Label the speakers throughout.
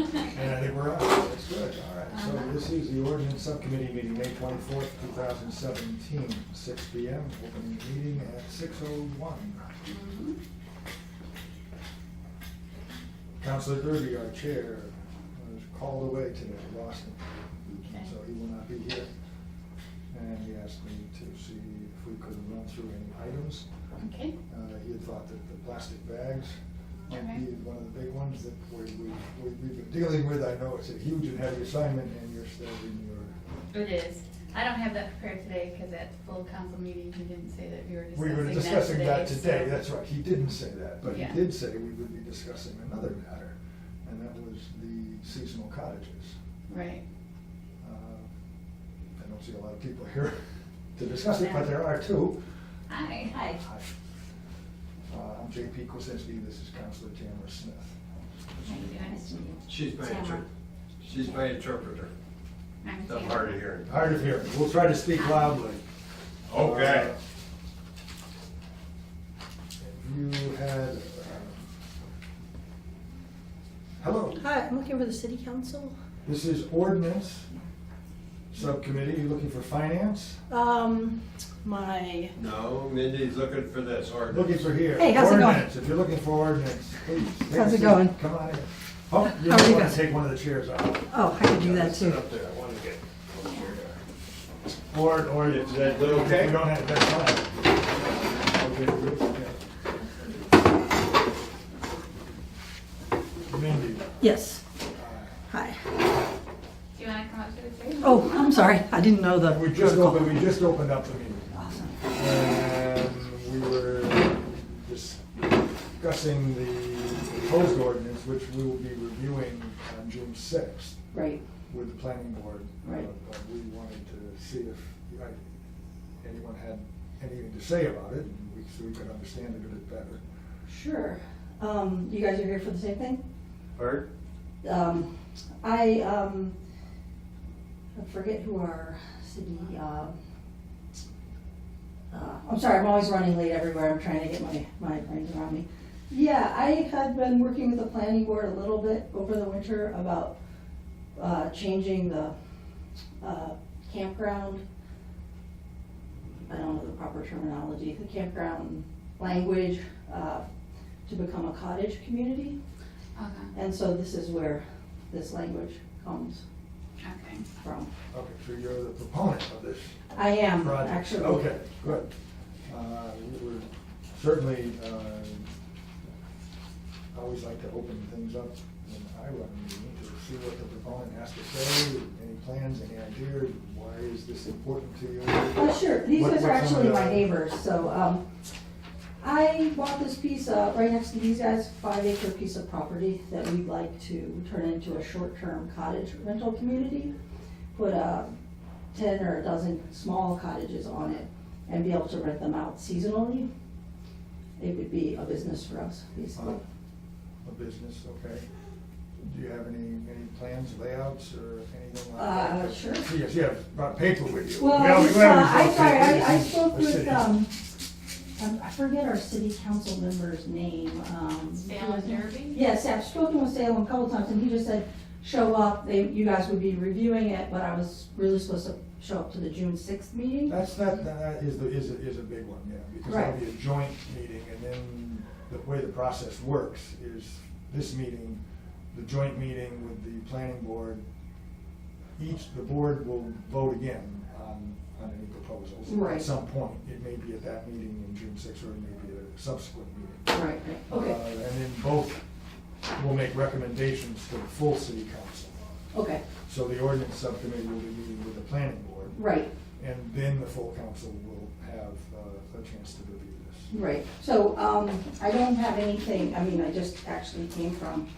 Speaker 1: Uh-huh.
Speaker 2: receives the ordinance subcommittee meeting, May twenty-fourth, two thousand seventeen, six P M, opening the meeting at six oh one.
Speaker 1: Mm-hmm.
Speaker 2: Counselor Derby, our chair, was called away today, lost him,
Speaker 1: Okay.
Speaker 2: so he will not be here. And he asked me to see if we could run through any items.
Speaker 1: Okay,
Speaker 2: Uh, He had thought that the plastic bags might be
Speaker 1: Okay.
Speaker 2: one of the big ones that we, we, we- we've been dealing with. I know it's a huge and heavy assignment and you're still in your,
Speaker 1: it is. I don't have that prepared today because at full council meeting, he didn't say that we were
Speaker 2: we were
Speaker 1: discussing
Speaker 2: discussing
Speaker 1: that today.
Speaker 2: that today,
Speaker 1: so-
Speaker 2: that's right. He didn't say that, but he
Speaker 1: Yeah.
Speaker 2: did say we would be discussing another matter. And that was the seasonal cottages.
Speaker 1: Right,
Speaker 2: Uh, I don't see a lot of people here to discuss it, but there are two.
Speaker 1: hi.
Speaker 3: Hi.
Speaker 2: Hi. Uh, I'm JP Kosinski, this is Counselor Tamara Smith.
Speaker 1: How you doing?
Speaker 3: Nice to meet you.
Speaker 4: She's my
Speaker 3: Tamara.
Speaker 4: interpreter. She's my interpreter.
Speaker 1: I'm
Speaker 4: The
Speaker 1: Tamara.
Speaker 4: hard of hearing.
Speaker 2: Hard of hearing. We'll try to speak loudly.
Speaker 4: Okay.
Speaker 2: You had, um, hello,
Speaker 5: Hi, I'm looking for the city council.
Speaker 2: this is ordinance subcommittee. You looking for finance?
Speaker 5: Um, my,
Speaker 4: No, Mindy's looking for this ordinance.
Speaker 2: Looking for here.
Speaker 5: Hey, how's it going?
Speaker 2: Ordinance. If you're looking for ordinance, please. take a
Speaker 5: How's it
Speaker 2: seat.
Speaker 5: going?
Speaker 2: Come on in. Oh, you
Speaker 5: How are
Speaker 2: might
Speaker 5: you
Speaker 2: want to
Speaker 5: guys?
Speaker 2: take one of the chairs out.
Speaker 5: oh, I could do that
Speaker 4: Sit
Speaker 5: too.
Speaker 4: up there, I want to get over there.
Speaker 2: Or, or if
Speaker 4: Is that little okay?
Speaker 2: We don't have that time. Okay, good, okay. Mindy,
Speaker 5: Yes. Hi.
Speaker 1: Do you want to come up to the table?
Speaker 5: Oh, I'm sorry, I didn't know the.
Speaker 2: we just opened, we just opened up the meeting.
Speaker 5: Awesome.
Speaker 2: And we were discussing the proposed ordinance, which we will be reviewing on June sixth
Speaker 5: Right.
Speaker 2: with the planning board.
Speaker 5: Right.
Speaker 2: Uh, But we wanted to see if uh, anyone had anything to say about it, and we, so we could understand it a bit better.
Speaker 5: Sure. Um, you guys are here for the same thing?
Speaker 4: Art?
Speaker 5: um, I, um, I forget who our city, uh, uh, I'm sorry, I'm always running late everywhere, I'm trying to get my, my brains around me. Yeah, I had been working with the planning board a little bit over the winter about, uh, changing the, uh, campground. I don't know the proper terminology, the campground language, uh, to become a cottage community.
Speaker 1: Okay,
Speaker 5: And so this is where this language comes
Speaker 1: okay.
Speaker 5: from.
Speaker 2: Okay, so you're the proponent of this
Speaker 5: I am,
Speaker 2: project?
Speaker 5: Um, actually.
Speaker 2: Okay, good. Uh, we We're certainly, uh, I always like to open things up when I run a meeting to see what the proponent has to say, any plans, any ideas, why is this important to you?
Speaker 5: Uh, sure, these
Speaker 2: What-
Speaker 5: guys are
Speaker 2: what's some of
Speaker 5: actually
Speaker 2: the-
Speaker 5: my neighbors, so, um, I bought this piece, uh, right next to these guys, five acre piece of property that we'd like to turn into a short-term cottage rental community. Put, uh, ten or a dozen small cottages on it and be able to rent them out seasonally. It would be a business for us, basically.
Speaker 2: A business, okay. Do you have any, any plans, layouts, or anything like that?
Speaker 5: Uh, sure.
Speaker 2: Yes, yeah, brought paper with you.
Speaker 5: Well,
Speaker 2: Well,
Speaker 5: I
Speaker 2: we
Speaker 5: just, uh,
Speaker 2: always have
Speaker 5: I, sorry,
Speaker 2: papers
Speaker 5: I, I
Speaker 2: in
Speaker 5: spoke
Speaker 2: the
Speaker 5: with,
Speaker 2: city.
Speaker 5: um, um, I forget our city council member's name, um.
Speaker 1: Salem Derby?
Speaker 5: Yes, I've spoken with Salem a couple times, and he just said, show up, they, you guys would be reviewing it, but I was really supposed to show up to the June sixth meeting.
Speaker 2: That's, that, that is, the- is, a- is a big one, yeah, because that'll
Speaker 5: Right.
Speaker 2: be a joint meeting, and then the way the process works is this meeting, the joint meeting with the planning board, each, the board will vote again on, on any proposals.
Speaker 5: Right.
Speaker 2: At some point, it may be at that meeting in June sixth, or it may be at a subsequent meeting.
Speaker 5: Right, right,
Speaker 2: Uh,
Speaker 5: okay,
Speaker 2: And then both will make recommendations to the full city council.
Speaker 5: okay,
Speaker 2: So the ordinance subcommittee will be meeting with the planning board.
Speaker 5: right,
Speaker 2: And then the full council will have uh, a chance to review this.
Speaker 5: right. So, um, I don't have anything, I mean, I just actually came from,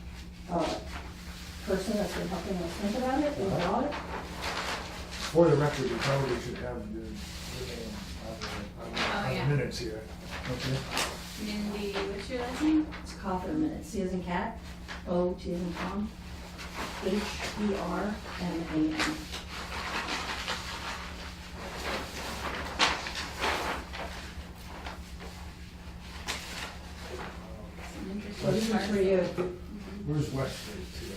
Speaker 5: uh, person that's been helping us think about it,
Speaker 2: Uh-huh.
Speaker 5: about it.
Speaker 2: For the record, you probably should have your, your name on the-
Speaker 1: Oh,
Speaker 2: on the- on
Speaker 1: yeah.
Speaker 2: the minutes here. Okay?
Speaker 1: Mindy, what's your last name?
Speaker 5: It's Coffer minutes, C as in cat, O, T as in Tom, H, E, R, M, A, N.
Speaker 1: Some interesting
Speaker 5: So this is
Speaker 1: parts.
Speaker 5: for you.
Speaker 1: Mm-hmm.
Speaker 2: Where's West Street?